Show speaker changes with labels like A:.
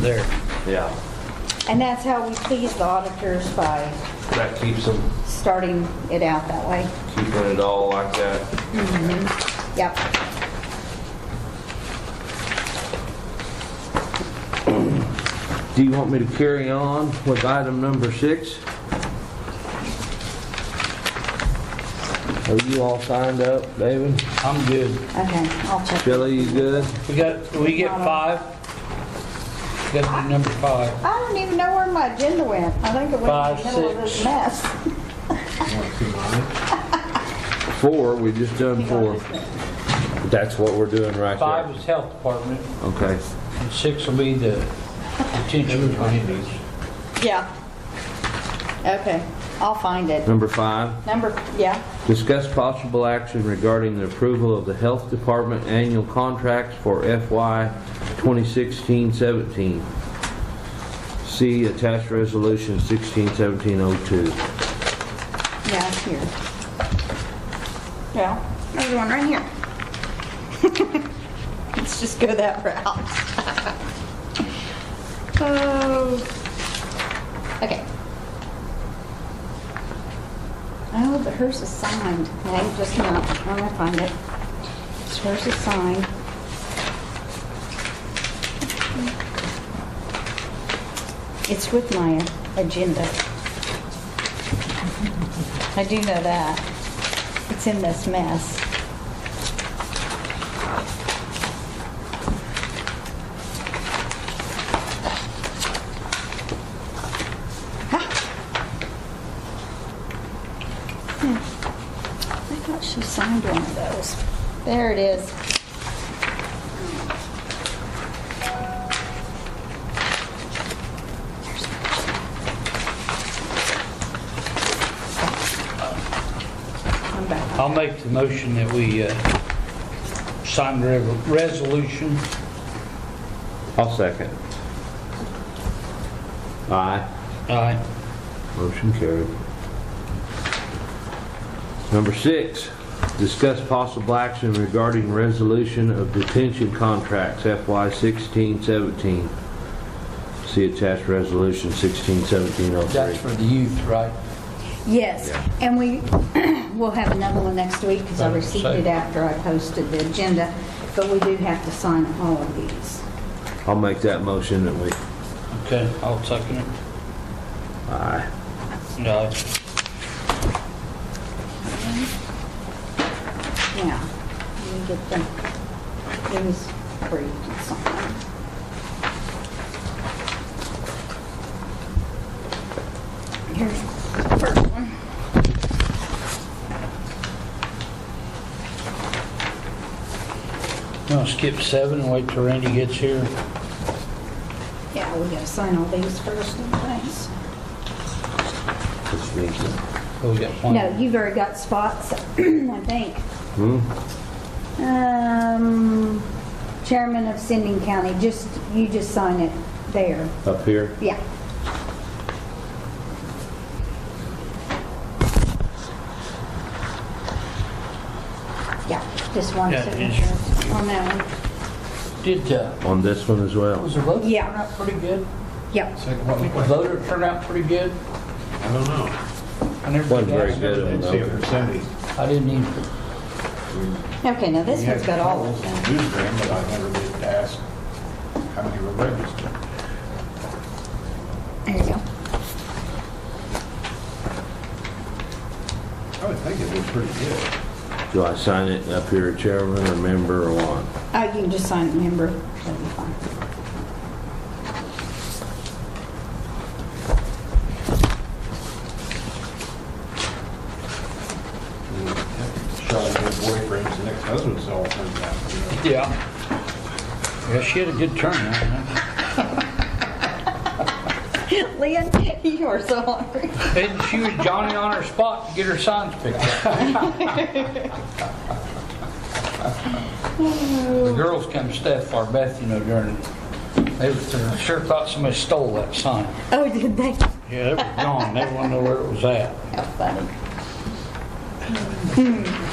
A: there.
B: Yeah,
C: And that's how we please the auditors by
B: that keeps them,
C: starting it out that way.
B: keeping it all like that.
C: Yep.
B: Do you want me to carry on with item number six? Are you all signed up, David?
A: I'm good.
C: Okay, I'll check.
B: Shelley, you good?
A: We got, we get five. We Got to do number five.
C: I don't even know where my agenda went. I think it
A: Five,
C: went in the middle of this
A: six.
C: mess.
B: Four, we just done four. That's what we're doing right
A: Five
B: there.
A: is health department,
B: Okay.
A: and six will be the detention committees.
C: Yeah. Okay, I'll find it.
B: Number five,
C: Number, yeah,
B: discuss possible action regarding the approval of the Health Department annual contracts for FY 2016-17. See attached resolution 161702.
C: yeah, it's here. Yeah, there's one right here. Let's just go that route. Oh. Okay. Oh, but hers is signed. I just not, I'm gonna find it. It's Hers is signed. It's with my agenda. I do know that. It's in this mess. I thought she signed one of those. There it is. I'm back.
A: I'll make the motion that we uh, sign the rev- resolution.
B: I'll second. Aye.
A: Aye.
B: Motion carried. Number six, discuss possible action regarding resolution of detention contracts FY 16-17. See attached resolution
D: That's
B: 16-1703.
D: for the youth, right?
C: Yes, and we will have another one next week because I received it after I posted the agenda, but we do have to sign all of these.
B: I'll make that motion that we,
A: Okay, I'll second it.
B: aye.
A: Aye.
C: Now, let me get them, these for you to sign. Here's the first one.
A: You want to skip seven and wait till Randy gets here?
C: Yeah, we gotta sign all these first, thanks.
B: Just need to-
A: Oh, we got one.
C: No, you've already got spots, I think. Um, Chairman of Sending County, just, you just sign it there.
B: Up here?
C: Yeah. Yeah, just one
A: Yeah, it is.
C: signature on that one.
A: Did, uh,
B: On this one as well?
A: was the vote
C: Yeah.
A: turn out pretty good?
C: Yep.
A: The voter turned out pretty good?
E: I don't know.
A: I never
B: Wasn't
A: did
B: very
A: ask.
B: good of them,
E: Didn't see a percentage.
A: I didn't even,
C: Okay, now this one's got all of them.
E: Use them, but I never did ask how many were registered.
C: There you go.
E: I would think it was pretty good.
B: Do I sign it up here, chairman or member or what?
C: Uh, you can just sign it, member. That'll be fine.
E: Charlotte's boyfriend's next husband's all turned out, you know.
A: yeah. Yeah, she had a good turnout. huh?
C: Lynn, you are so hungry.
A: And she was Johnny on her spot to get her signs picked up. The girls come to Steph or Beth, you know, during, they sure thought somebody stole that sign.
C: Oh, did they?
A: Yeah, it was gone. They didn't know where it was at.
C: How funny.